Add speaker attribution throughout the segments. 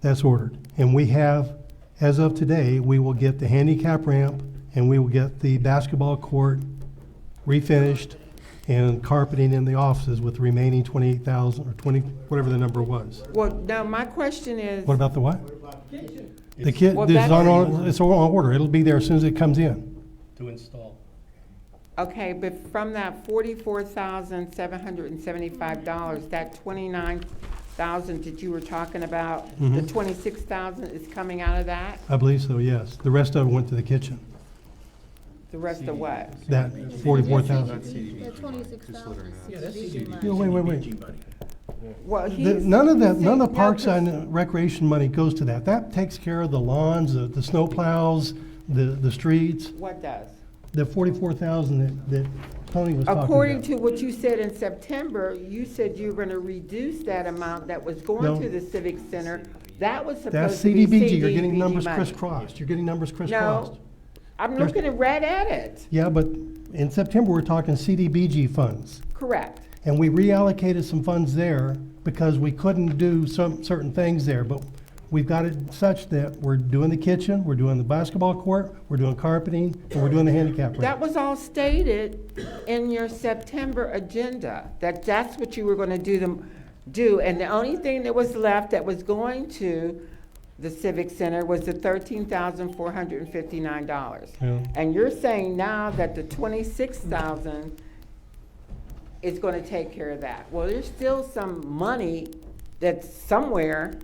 Speaker 1: That's ordered. And we have, as of today, we will get the handicap ramp and we will get the basketball court refinished and carpeting in the offices with the remaining twenty-eight thousand or twenty, whatever the number was.
Speaker 2: Well, now, my question is,
Speaker 1: What about the what? The kit,
Speaker 2: Well,
Speaker 1: it's on,
Speaker 2: that's-
Speaker 1: on- it's all on order. It'll be there as soon as it comes in.
Speaker 3: to install.
Speaker 2: okay, but from that forty-four thousand, seven hundred and seventy-five dollars, that twenty-nine thousand that you were talking about, the
Speaker 1: Mhm.
Speaker 2: twenty-six thousand is coming out of that?
Speaker 1: I believe so, yes. The rest of it went to the kitchen,
Speaker 2: The rest of what?
Speaker 1: that forty-four thousand.
Speaker 4: The twenty-six thousand is
Speaker 1: Yeah, wait, wait, wait.
Speaker 2: Well,
Speaker 1: The-
Speaker 2: he's.
Speaker 1: None of that,
Speaker 2: he's
Speaker 1: none of the
Speaker 2: saying- no,
Speaker 1: parks
Speaker 2: cause-
Speaker 1: and recreation money goes to that. That takes care of the lawns, the, the snow plows, the, the streets,
Speaker 2: What does?
Speaker 1: the forty-four thousand that, that Tony was talking
Speaker 2: According
Speaker 1: about.
Speaker 2: to what you said in September, you said you were gonna reduce that amount that was
Speaker 1: No.
Speaker 2: going to the civic center. That was
Speaker 1: That's
Speaker 2: supposed to be
Speaker 1: CDBG, you're getting
Speaker 2: CDBG
Speaker 1: numbers
Speaker 2: money.
Speaker 1: crisscrossed, you're getting numbers crisscrossed.
Speaker 2: I'm
Speaker 1: There's-
Speaker 2: looking at red at it,
Speaker 1: Yeah, but in September, we're talking CDBG funds.
Speaker 2: correct.
Speaker 1: And we reallocated some funds there because we couldn't do some, certain things there, but we've got it such that we're doing the kitchen, we're doing the basketball court, we're doing carpeting, and we're doing the handicap
Speaker 2: That
Speaker 1: ramp.
Speaker 2: was all stated in your September agenda, that that's what you were gonna do them, do. And the only thing that was left that was going to the civic center was the thirteen thousand four hundred and fifty-nine dollars.
Speaker 1: Yeah.
Speaker 2: And you're saying now that the twenty-six thousand is gonna take care of that. Well, there's still some money that's somewhere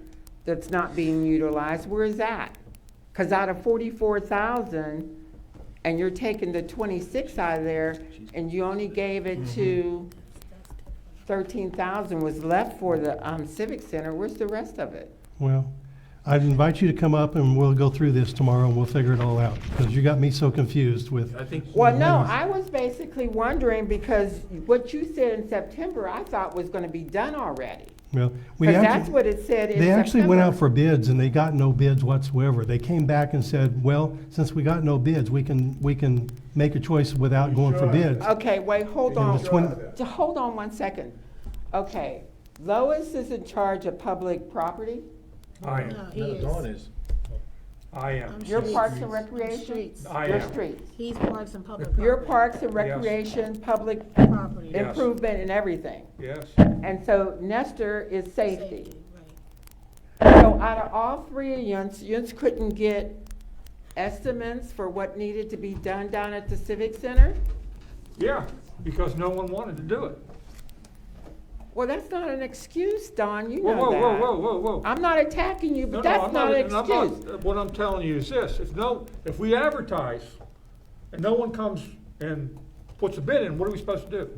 Speaker 2: that's not being utilized. Where is that? Cause out of forty-four thousand, and you're taking the twenty-six out of there, and you only gave it to thirteen thousand was left for the, um, civic center. Where's the rest of it?
Speaker 1: Well, I'd invite you to come up and we'll go through this tomorrow and we'll figure it all out, because you got me so confused with,
Speaker 5: I think,
Speaker 2: Well, no, I was basically wondering, because what you said in September, I thought was gonna be done already.
Speaker 1: well, we
Speaker 2: Because
Speaker 1: actually.
Speaker 2: that's what it said in
Speaker 1: They actually went out
Speaker 2: September.
Speaker 1: for bids and they got no bids whatsoever. They came back and said, well, since we got no bids, we can, we can make a choice without going for bids.
Speaker 2: Okay, wait, hold
Speaker 1: And
Speaker 2: on,
Speaker 1: the twin-
Speaker 2: Ju- hold on one second. Okay, Lois is in charge of public property?
Speaker 6: I am,
Speaker 4: He is.
Speaker 3: is.
Speaker 6: I am.
Speaker 2: Your Parks and Recreation?
Speaker 4: Streets.
Speaker 6: I
Speaker 2: Your
Speaker 6: am.
Speaker 2: streets?
Speaker 4: He's parks and public
Speaker 2: Your
Speaker 4: property.
Speaker 2: Parks and
Speaker 6: Yes.
Speaker 2: Recreation, public
Speaker 4: Property.
Speaker 6: Yes.
Speaker 2: improvement and everything.
Speaker 6: Yes,
Speaker 2: And so Nestor is safety.
Speaker 4: right.
Speaker 2: So out of all three of yous, yous couldn't get estimates for what needed to be done down at the Civic Center?
Speaker 6: yeah, because no one wanted to do it.
Speaker 2: Well, that's not an excuse, Don, you
Speaker 6: Whoa,
Speaker 2: know that.
Speaker 6: whoa, whoa, whoa, whoa, whoa.
Speaker 2: I'm not attacking you,
Speaker 6: No,
Speaker 2: but
Speaker 6: no,
Speaker 2: that's
Speaker 6: I'm
Speaker 2: not an
Speaker 6: and I'm not-
Speaker 2: excuse.
Speaker 6: What I'm telling you is this, if no, if we advertise and no one comes and puts a bid in, what are we supposed to do?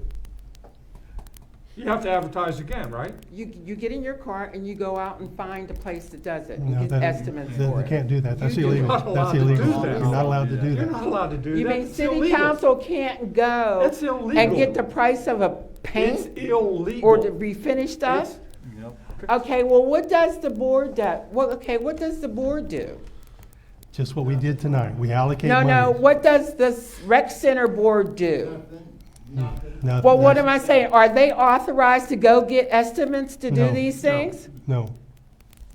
Speaker 6: You have to advertise again, right?
Speaker 2: You, you get in your car and you go out and find a place that does it, and
Speaker 1: No,
Speaker 2: get
Speaker 1: that-
Speaker 2: estimates
Speaker 1: they-
Speaker 2: for
Speaker 1: They
Speaker 2: it.
Speaker 1: can't do that. That's
Speaker 6: You're
Speaker 1: illegal.
Speaker 6: not allowed
Speaker 1: That's
Speaker 6: to do
Speaker 1: illegal.
Speaker 6: that.
Speaker 1: You're not allowed to do
Speaker 6: You're not
Speaker 1: that.
Speaker 6: allowed to do that.
Speaker 2: You mean
Speaker 6: It's
Speaker 2: city
Speaker 6: illegal.
Speaker 2: council can't go
Speaker 6: It's
Speaker 2: and
Speaker 6: illegal.
Speaker 2: get the price of a
Speaker 6: It's
Speaker 2: paint
Speaker 6: illegal.
Speaker 2: or the refinished stuff?
Speaker 6: It's-
Speaker 2: Okay, well, what does the board do? Well, okay, what does the board do?
Speaker 1: Just what we did tonight. We allocate
Speaker 2: No,
Speaker 1: money.
Speaker 2: no, what does the s- rec center board do?
Speaker 1: No,
Speaker 2: Well, what am
Speaker 1: that's-
Speaker 2: I saying? Are they authorized to go get estimates to do
Speaker 1: No.
Speaker 2: these things?
Speaker 1: No.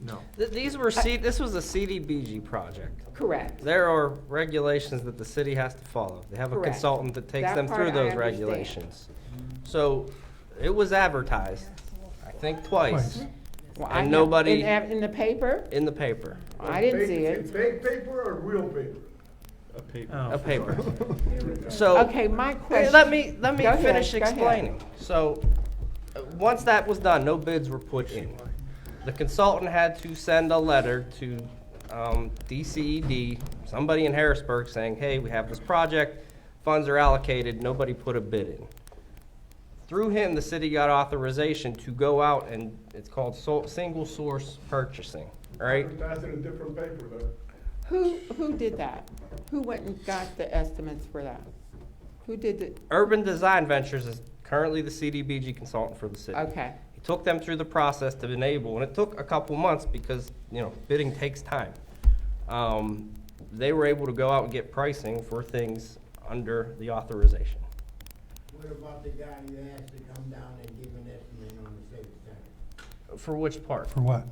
Speaker 6: No.
Speaker 5: Th- these were C, this was a CDBG project.
Speaker 2: Correct.
Speaker 5: There are regulations that the city has to follow. They have a
Speaker 2: Correct.
Speaker 5: consultant that takes
Speaker 2: That
Speaker 5: them
Speaker 2: part I
Speaker 5: through those
Speaker 2: understand.
Speaker 5: regulations. So, it was advertised, I think twice,
Speaker 1: Twice.
Speaker 2: Well, I
Speaker 5: And
Speaker 2: have-
Speaker 5: nobody-
Speaker 2: in ev- In the paper?
Speaker 5: in the paper,
Speaker 2: I didn't see it.
Speaker 7: Fake paper or real paper?
Speaker 3: A paper.
Speaker 5: a paper. So.
Speaker 2: Okay, my
Speaker 5: Hey,
Speaker 2: question.
Speaker 5: Let me, let me
Speaker 2: Go ahead,
Speaker 5: finish
Speaker 2: go ahead.
Speaker 5: explaining. So, uh, once that was done, no bids were put in. The consultant had to send a letter to um, DCED, somebody in Harrisburg, saying, hey, we have this project, funds are allocated, nobody put a bid in. Through him, the city got authorization to go out and, it's called so- single source purchasing, all right?
Speaker 7: Advertise it in different paper though.
Speaker 2: Who, who did that? Who went and got the estimates for that? Who did it?
Speaker 5: Urban Design Ventures is currently the CDBG consultant for the city.
Speaker 2: Okay,
Speaker 5: He took them through the process to enable, and it took a couple months because, you know, bidding takes time. Um, They were able to go out and get pricing for things under the authorization.
Speaker 8: What about the guy you asked to come down and give an estimate on the safety center?
Speaker 5: For which part?
Speaker 1: For what?